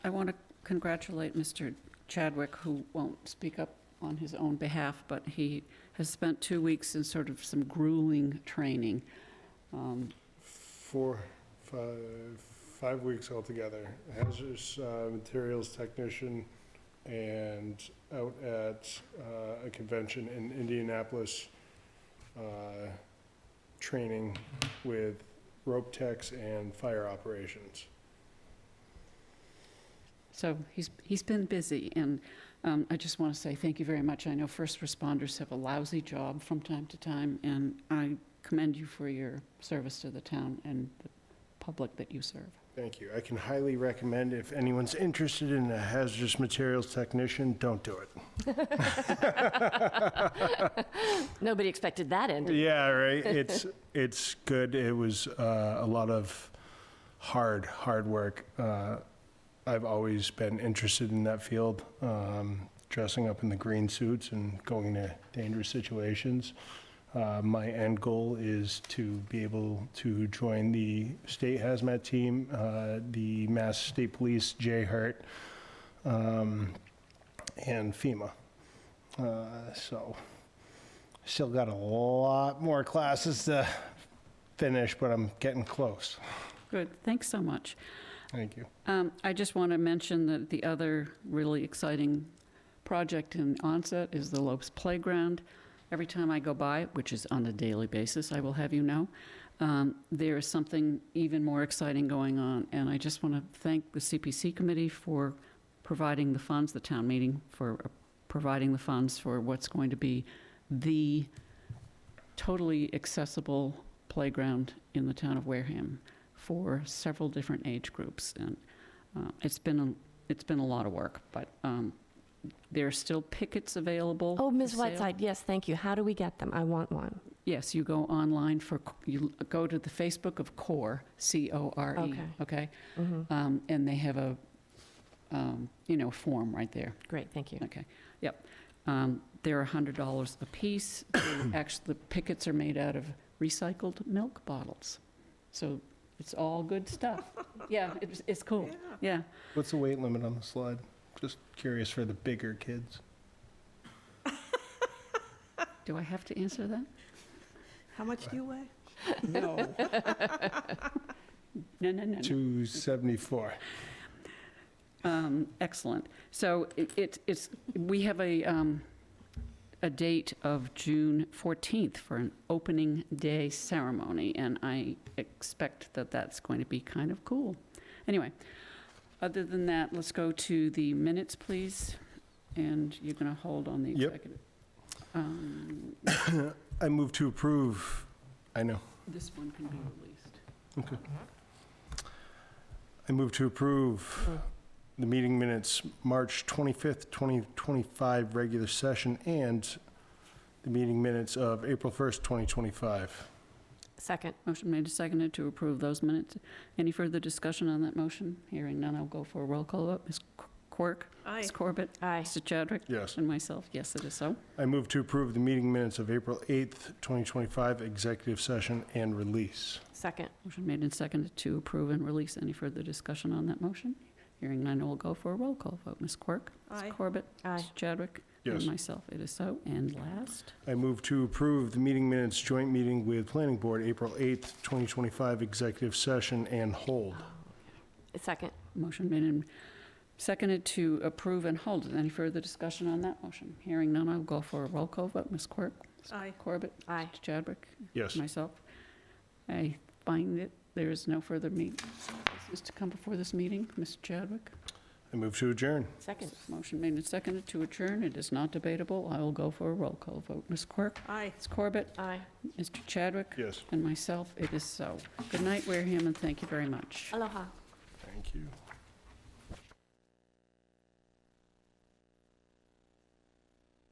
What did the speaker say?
I want to congratulate Mr. Chadwick, who won't speak up on his own behalf, but he has spent two weeks in sort of some grueling training. Um, Four, five, five weeks altogether. Hazardous uh, materials technician and out at uh, a convention in Indianapolis, uh, training with rope techs and fire operations. So he's, he's been busy, and um, I just want to say thank you very much. I know first responders have a lousy job from time to time, and I commend you for your service to the town and the public that you serve. Thank you. I can highly recommend if anyone's interested in a hazardous materials technician, don't do it. Nobody expected that end. Yeah, right. It's it's good. It was uh, a lot of hard hard work. Uh, I've always been interested in that field, um, dressing up in the green suits and going to dangerous situations. Uh, my end goal is to be able to join the state hazmat team, uh, the Mass State Police, E Jay Hurt, um, and FEMA. Uh, so. Still got a lot more classes to finish, but I'm getting close. Good, thanks so much. Thank you. Um, I just want to mention that the other really exciting project in onset is the Lopes Playground. Every time I go by, which is on a daily basis, I will have you know, um, there is something even more exciting going on. And I just want to thank the CPC committee for providing the funds, the town meeting for providing the funds for what's going to be the totally accessible playground in the town of Wareham for several different age groups, and uh, it's been, a it's been a lot of work, but um, there are still pickets available. Oh, Ms. for sale. Whiteside, yes, thank you. How do we get them? I want one. Yes, you go online for, you go to the Facebook of CORE, C-O-R-E, Okay. E, okay? Mhm. Um, And they have a, um, you know, form right there. Great, thank you. Okay, yep. Um, They're $100 apiece. They Actually, the pickets are made out of recycled milk bottles, so it's all good stuff. Yeah, it's, it's cool, yeah. What's the weight limit on the slide? Just curious for the bigger kids. Do I have to answer that? How much do you weigh? No. No, no, no, no. 274. Um, Excellent. So it- it- it's, we have a, um, a date of June 14th for an opening day ceremony, and I expect that that's going to be kind of cool. Anyway, other than that, let's go to the minutes, please, and you're going to hold on the Yep. executive. Um, I move to approve. I know. This one can be released. I move to approve the meeting minutes, March 25th, 2025, regular session, and the meeting minutes of April 1st, 2025. Second, Motion made and seconded to approve those minutes. Any further discussion on that motion? Hearing none, I'll go for a roll call vote. Ms. Qu- Quirk? Aye. Ms. Corbett? aye. Mr. Chadwick? Yes. And myself, yes, it is so. I move to approve the meeting minutes of April 8th, 2025, executive session and release. Second, Motion made and seconded to approve and release. Any further discussion on that motion? Hearing none, we'll go for a roll call vote. Ms. Quirk? Aye. Ms. Corbett? aye. Mr. Chadwick? Yes. And myself, it is so. And last, I move to approve the meeting minutes joint meeting with Planning Board, April 8th, 2025, executive session and hold. Second, motion made and seconded to approve and hold. Any further discussion on that motion? Hearing none, I'll go for a roll call vote. Ms. Quirk? Ms. Aye. Corbett? aye. Mr. Chadwick? Yes. myself. I find that there is no further meet, business to come before this meeting. Mr. Chadwick? I move to adjourn. Second, Motion made and seconded to adjourn. It is not debatable. I will go for a roll call vote. Ms. Quirk? Aye. Ms. Corbett? aye. Mr. Chadwick? Yes. And myself, it is so. Good night, Wareham, and thank you very much. Aloha. Thank you.